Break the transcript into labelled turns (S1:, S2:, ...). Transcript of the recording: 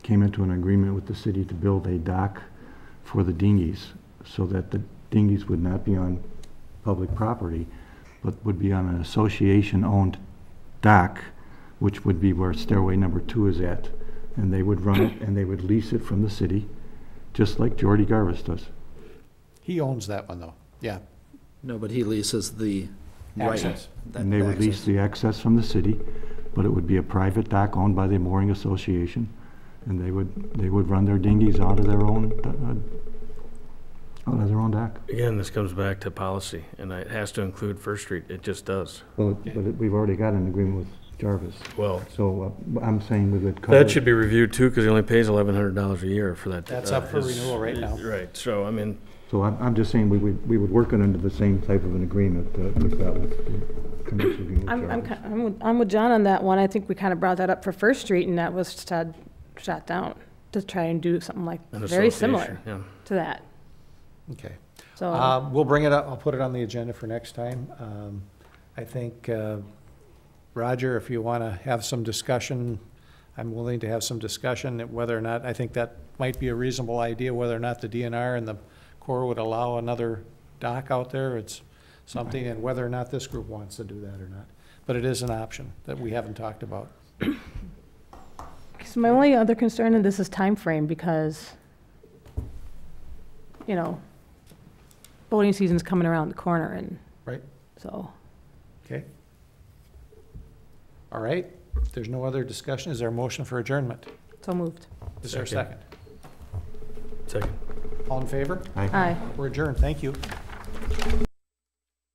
S1: came into an agreement with the city to build a dock for the dinghies, so that the dinghies would not be on public property, but would be on an association-owned dock, which would be where stairway number two is at. And they would run it, and they would lease it from the city, just like Jordy Garvis does.
S2: He owns that one, though. Yeah.
S3: No, but he leases the right.
S2: Access.
S3: that-
S1: And they would lease
S3: access.
S1: the access from the city, but it would be a private dock owned by the mooring association, and they would, they would run their dinghies out of their own, uh, out of their own dock.
S4: Again, this comes back to policy, and it has to include First Street. It just does.
S1: Well, but it- we've already got an agreement with Jarvis,
S4: Well,
S1: so uh, I'm saying we would cover.
S4: that should be reviewed too, because he only pays eleven hundred dollars a year for that.
S2: That's
S4: uh,
S2: up for
S4: his-
S2: renewal right now.
S4: Right, so I mean,
S1: So I'm, I'm just saying we would, we would work it under the same type of an agreement uh, with that, with the commercial agreement with
S5: I'm, I'm, ki-
S1: Jarvis.
S5: I'm with- I'm with John on that one. I think we kind of brought that up for First Street, and that was shot, shot down to try and do something like,
S4: an
S5: very
S4: association,
S5: similar
S4: yeah.
S5: to that.
S2: Okay.
S5: So,
S2: Um, We'll bring it up, I'll put it on the agenda for next time. Um, I think, uh, Roger, if you want to have some discussion, I'm willing to have some discussion that whether or not, I think that might be a reasonable idea, whether or not the DNR and the Corps would allow another dock out there. It's something, and whether or not this group wants to do that or not. But it is an option that we haven't talked about.
S5: 'cause my only other concern in this is time frame because, you know, boating season's coming around the corner, and.
S2: Right.
S5: So,
S2: Okay? All right, if there's no other discussion, is there a motion for adjournment?
S5: so moved.
S2: Is there a second?
S4: Second. Second.
S2: All in favor?
S5: Aye. uh,
S2: We're adjourned, thank you.